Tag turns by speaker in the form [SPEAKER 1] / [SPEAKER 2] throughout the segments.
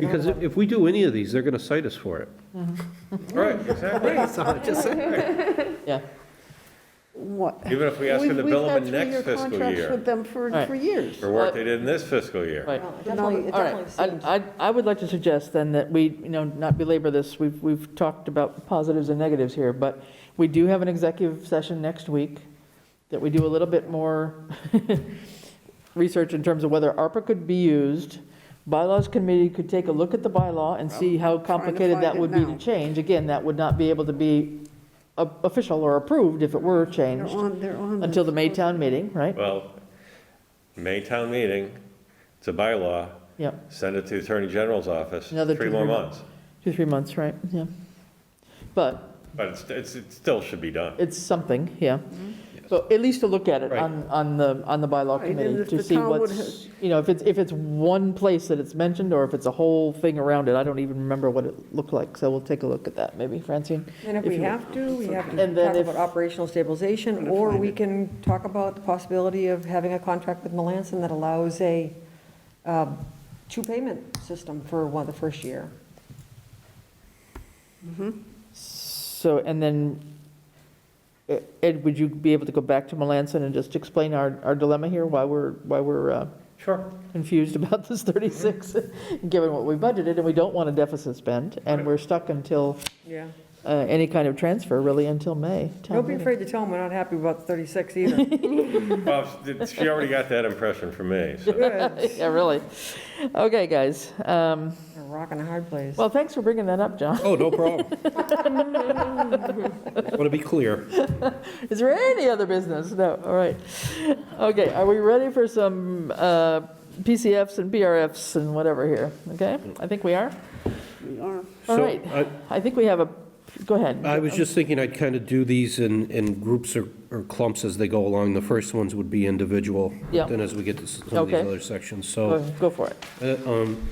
[SPEAKER 1] Because if if we do any of these, they're going to cite us for it.
[SPEAKER 2] Right, exactly.
[SPEAKER 3] Yeah,
[SPEAKER 4] What?
[SPEAKER 2] Even if we ask for the
[SPEAKER 4] We've- we've
[SPEAKER 2] billable
[SPEAKER 4] had
[SPEAKER 2] next
[SPEAKER 4] three-year
[SPEAKER 2] fiscal
[SPEAKER 4] contracts
[SPEAKER 2] year.
[SPEAKER 4] with them for,
[SPEAKER 3] Right.
[SPEAKER 4] for years.
[SPEAKER 2] for work they did in this fiscal year.
[SPEAKER 3] right.
[SPEAKER 5] Well, it
[SPEAKER 4] No,
[SPEAKER 5] definitely, it
[SPEAKER 3] All right,
[SPEAKER 5] definitely seems.
[SPEAKER 3] I, I- I would like to suggest then that we, you know, not belabor this, we've, we've talked about positives and negatives here, but we do have an executive session next week, that we do a little bit more research in terms of whether ARPA could be used. Bylaws committee could take a look at the bylaw and see how complicated
[SPEAKER 4] find
[SPEAKER 3] that
[SPEAKER 4] it
[SPEAKER 3] would be to
[SPEAKER 4] now.
[SPEAKER 3] change. Again, that would not be able to be o- official or approved if it were
[SPEAKER 4] They're
[SPEAKER 3] changed
[SPEAKER 4] on, they're on.
[SPEAKER 3] until the Maytown meeting, right?
[SPEAKER 2] Well, Maytown meeting, it's a bylaw,
[SPEAKER 3] Yeah,
[SPEAKER 2] send it to the Attorney General's office,
[SPEAKER 3] Another
[SPEAKER 2] three
[SPEAKER 3] two,
[SPEAKER 2] more
[SPEAKER 3] three mon-
[SPEAKER 2] months.
[SPEAKER 3] two, three months, right, yeah. But
[SPEAKER 2] But it's, it's, it still should be done.
[SPEAKER 3] It's something, yeah. So at least to look at it on, on the, on the bylaw
[SPEAKER 4] Right, and
[SPEAKER 3] committee
[SPEAKER 4] if
[SPEAKER 3] to
[SPEAKER 4] the
[SPEAKER 3] see
[SPEAKER 4] town would
[SPEAKER 3] what's, you know, if it's, if it's one place that it's mentioned or if it's a whole thing around it, I don't even remember what it looked like. So we'll take a look at that, maybe, Francine?
[SPEAKER 5] And if
[SPEAKER 3] if
[SPEAKER 5] we
[SPEAKER 3] you-
[SPEAKER 5] have to, we have to
[SPEAKER 3] And then
[SPEAKER 5] talk
[SPEAKER 3] if-
[SPEAKER 5] about operational stabilization, or we can talk about the possibility of having a contract with Melanson that allows a uh, two-payment system for one, the first year.
[SPEAKER 3] So, and then, eh, Ed, would you be able to go back to Melanson and just explain our, our dilemma here, why we're, why we're uh,
[SPEAKER 2] Sure.
[SPEAKER 3] confused about this 36, given what we budgeted and we don't want a deficit spend and
[SPEAKER 2] Right.
[SPEAKER 3] we're stuck until,
[SPEAKER 5] Yeah.
[SPEAKER 3] uh, any kind of transfer really until May. town
[SPEAKER 5] Don't be
[SPEAKER 3] meeting.
[SPEAKER 5] afraid to tell them we're not happy about 36 either.
[SPEAKER 2] Well, she already got that impression from me, so.
[SPEAKER 5] Good.
[SPEAKER 3] Yeah, really. Okay, guys. Um,
[SPEAKER 5] They're rocking a hard place.
[SPEAKER 3] Well, thanks for bringing that up, John.
[SPEAKER 1] Oh, no problem. Want to be clear.
[SPEAKER 3] Is there any other business? No, all right. Okay, are we ready for some uh, PCFs and PRFs and whatever here? Okay, I think we are.
[SPEAKER 4] We are.
[SPEAKER 3] All
[SPEAKER 1] So,
[SPEAKER 3] right.
[SPEAKER 1] I-
[SPEAKER 3] I think we have a, go ahead.
[SPEAKER 2] Uh,
[SPEAKER 1] I was just thinking I'd kind of do these in, in groups or, or clumps as they go along. The first ones would be individual.
[SPEAKER 3] Yeah.
[SPEAKER 1] Then as we get to some of these
[SPEAKER 3] Okay.
[SPEAKER 1] other sections,
[SPEAKER 3] Go
[SPEAKER 1] so.
[SPEAKER 3] go for it.
[SPEAKER 1] uh, um,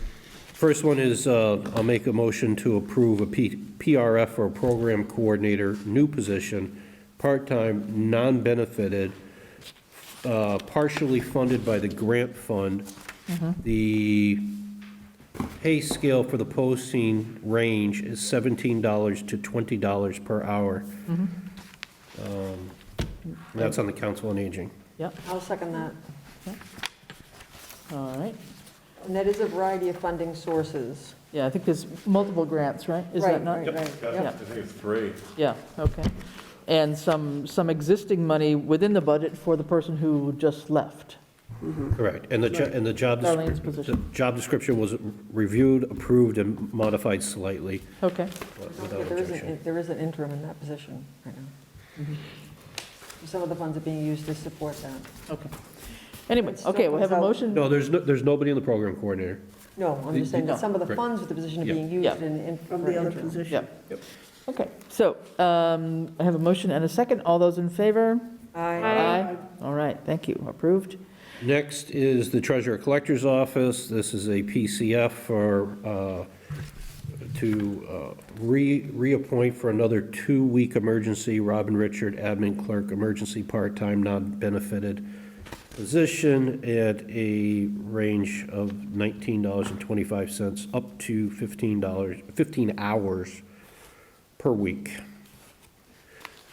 [SPEAKER 1] First one is, uh, I'll make a motion to approve a P- PRF or Program Coordinator, new position, part-time, non-benefited, uh, partially funded by the grant fund. The pay scale for the posting range is $17 to $20 per hour. Um, That's on the Council on Aging.
[SPEAKER 3] Yep,
[SPEAKER 5] I'll second that.
[SPEAKER 3] all right.
[SPEAKER 5] And that is a variety of funding sources.
[SPEAKER 3] Yeah, I think there's multiple grants, right? Is
[SPEAKER 5] Right,
[SPEAKER 3] that not?
[SPEAKER 5] right, right.
[SPEAKER 3] Yeah.
[SPEAKER 2] I think it's three.
[SPEAKER 3] Yeah, okay. And some, some existing money within the budget for the person who just left.
[SPEAKER 1] Correct, and the, jo- and the job,
[SPEAKER 3] Darlene's
[SPEAKER 1] descri- the
[SPEAKER 3] position.
[SPEAKER 1] job description was reviewed, approved, and modified slightly
[SPEAKER 3] Okay.
[SPEAKER 1] without
[SPEAKER 5] There is
[SPEAKER 1] objection.
[SPEAKER 5] an- There is an interim in that position right now.
[SPEAKER 3] Mm-hmm.
[SPEAKER 5] Some of the funds are being used to support that.
[SPEAKER 3] Okay. Anyway,
[SPEAKER 5] It still
[SPEAKER 3] okay, we have a
[SPEAKER 5] comes out-
[SPEAKER 3] motion.
[SPEAKER 1] No, there's, no- there's nobody in the program coordinator.
[SPEAKER 5] No, I'm just saying that some of the
[SPEAKER 1] Right.
[SPEAKER 5] funds with the position are being
[SPEAKER 3] Yeah.
[SPEAKER 5] used in- in.
[SPEAKER 4] From
[SPEAKER 5] for
[SPEAKER 4] the other
[SPEAKER 5] interim.
[SPEAKER 4] position.
[SPEAKER 3] Yeah. Okay, so um, I have a motion and a second. All those in favor?
[SPEAKER 5] Aye.
[SPEAKER 3] All right, thank you. Approved.
[SPEAKER 1] Next is the treasurer collector's office. This is a PCF for, uh, to uh, re, reappoint for another two-week emergency, Robin Richard, admin clerk, emergency part-time, non-benefited position at a range of $19.25 up to $15, 15 hours per week.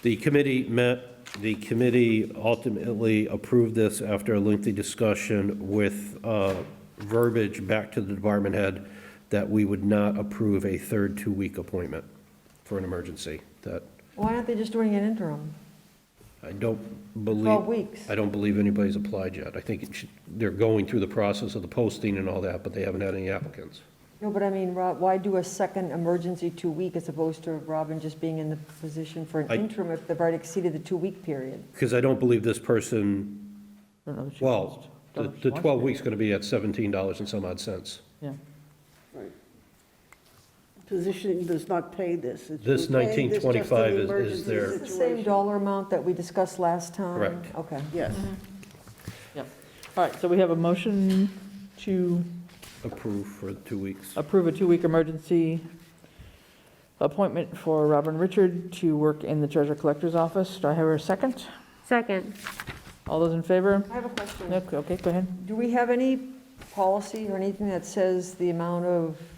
[SPEAKER 1] The committee met, the committee ultimately approved this after a lengthy discussion with uh, verbiage back to the department head that we would not approve a third two-week appointment for an emergency, that
[SPEAKER 5] Why aren't they just doing an interim?
[SPEAKER 1] I don't believe.
[SPEAKER 5] 12 weeks.
[SPEAKER 1] I don't believe anybody's applied yet. I think it should, they're going through the process of the posting and all that, but they haven't had any applicants.
[SPEAKER 5] No, but I mean, Rob, why do a second emergency two-week as opposed to Robin just being in the position for an
[SPEAKER 1] I-
[SPEAKER 5] interim if they've already exceeded the two-week period?
[SPEAKER 1] Because I don't believe this person,
[SPEAKER 3] I don't know that you
[SPEAKER 1] well, the
[SPEAKER 3] wants-
[SPEAKER 1] the 12 weeks going to be at $17 and some odd cents.
[SPEAKER 3] Yeah,
[SPEAKER 4] Position does not pay this. It's-
[SPEAKER 1] This
[SPEAKER 4] we pay this just in
[SPEAKER 1] 1925 is- is
[SPEAKER 4] emergency
[SPEAKER 1] their-
[SPEAKER 5] Is it the same
[SPEAKER 4] situation.
[SPEAKER 5] dollar amount that we discussed last time?
[SPEAKER 1] Correct.
[SPEAKER 5] Okay.
[SPEAKER 4] Yes.
[SPEAKER 3] yeah. All right, so we have a motion to
[SPEAKER 1] Approved for two weeks.
[SPEAKER 3] approve a two-week emergency appointment for Robin Richard to work in the treasure collector's office. Do I have a second?
[SPEAKER 6] Second.
[SPEAKER 3] All those in favor?
[SPEAKER 5] I have a question.
[SPEAKER 3] Nope, Okay, go ahead.
[SPEAKER 5] Do we have any policy or anything that says the amount of